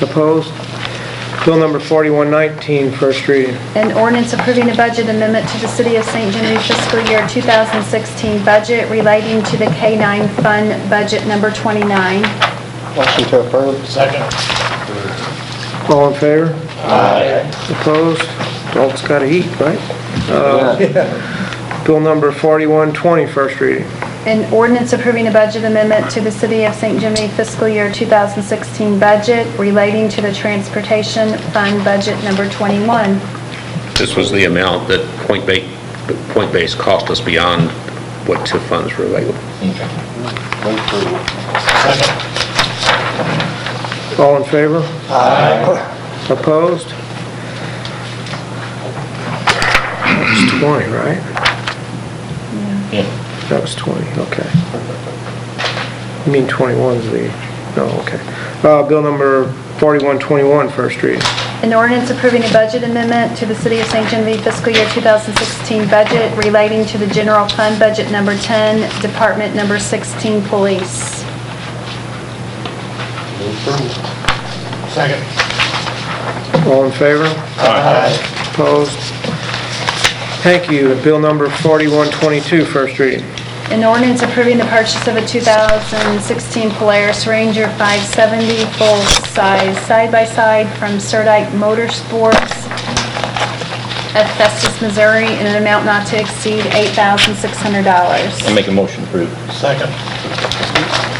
Opposed? Bill number 4119, first reading. An ordinance approving a budget amendment to the City of St. Genevieve fiscal year 2016 budget relating to the K-9 Fund Budget Number 29. Motion to approve. Second. All in favor? Aye. Opposed? Adults gotta eat, right? Uh, Bill number 4120, first reading. An ordinance approving a budget amendment to the City of St. Genevieve fiscal year 2016 budget relating to the Transportation Fund Budget Number 21. This was the amount that point ba, point base cost us beyond what TIF funds were available. Move approval. Second. All in favor? Aye. Opposed? That was 20, right? Yeah. That was 20, okay. You mean 21's the, oh, okay. Uh, Bill number 4121, first reading. An ordinance approving a budget amendment to the City of St. Genevieve fiscal year 2016 budget relating to the General Fund Budget Number 10, Department Number 16, Police. Move approval. Second. All in favor? Aye. Opposed? Thank you. Bill number 4122, first reading. An ordinance approving the purchase of a 2016 Polaris Ranger 570 full-size side-by-side from Sirdike Motorsports of Festus, Missouri, in an amount not to exceed $8,600. Make a motion to approve. Second.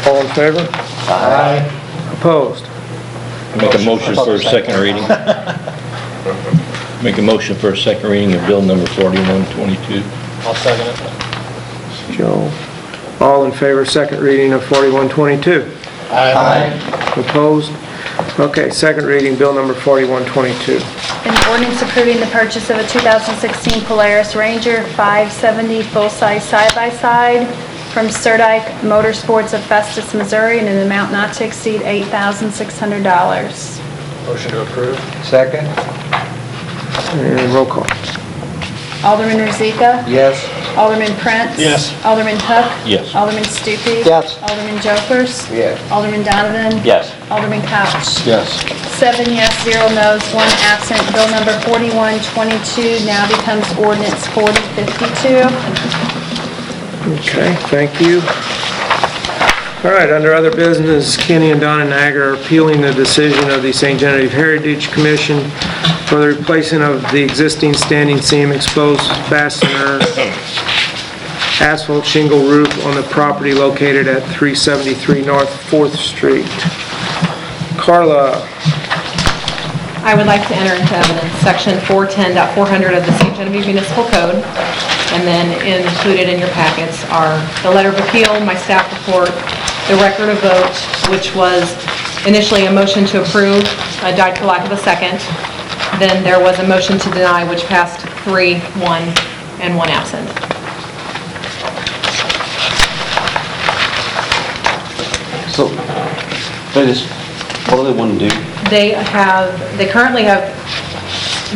All in favor? Aye. Opposed? Make a motion for a second reading. Make a motion for a second reading of bill number 4122. I'll second it. Joe. All in favor, second reading of 4122. Aye. Opposed? Okay, second reading, bill number 4122. An ordinance approving the purchase of a 2016 Polaris Ranger 570 full-size side-by-side from Sirdike Motorsports of Festus, Missouri, in an amount not to exceed $8,600. Motion to approve. Second? And roll call. Alderman Rozika? Yes. Alderman Prince? Yes. Alderman Hook? Yes. Alderman Stupi? Yes. Alderman Jokers? Yes. Alderman Donovan? Yes. Alderman Couch? Yes. Seven yes, zero no's, one absent. Bill number 4122 now becomes ordinance 4052. Okay, thank you. All right, under other business, Kenny and Donna Nagar are appealing the decision of the St. Genevieve Heritage Commission for the replacement of the existing standing seam exposed fastener asphalt shingle roof on the property located at 373 North 4th Street. Carla, I would like to enter into evidence section 410.400 of the St. Genevieve Municipal Code, and then included in your packets are the letter of appeal, my staff report, the record of vote, which was initially a motion to approve, uh, died for lack of a second. Then there was a motion to deny, which passed three, one, and one absent. So, they just, what do they want to do? They have, they currently have,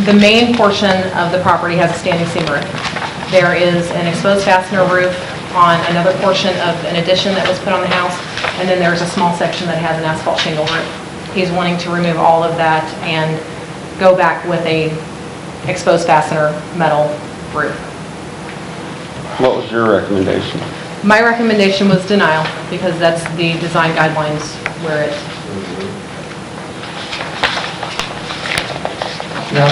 the main portion of the property has a standing seam roof. There is an exposed fastener roof on another portion of an addition that was put on the house, and then there's a small section that has an asphalt shingle roof. He's wanting to remove all of that and go back with a exposed fastener metal roof. What was your recommendation? My recommendation was denial, because that's the design guidelines where it Now,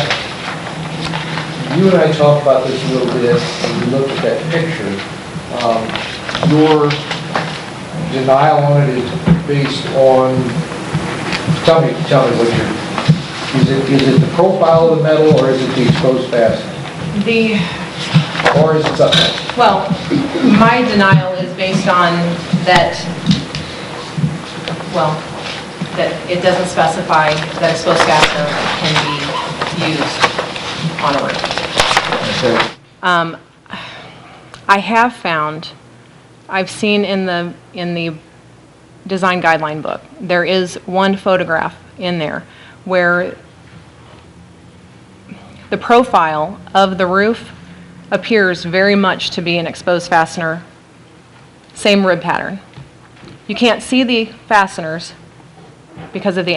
you and I talked about this a little bit, and we looked at that picture. Um, Your denial on it is based on, tell me, tell me what your, is it, is it the profile of the metal, or is it the exposed fastener? The Or is it something? Well, my denial is based on that, well, that it doesn't specify that explosive fastener can be used on a roof. Okay. Um, I have found, I've seen in the, in the design guideline book, there is one photograph in there where the profile of the roof appears very much to be an exposed fastener, same rib pattern. You can't see the fasteners because of the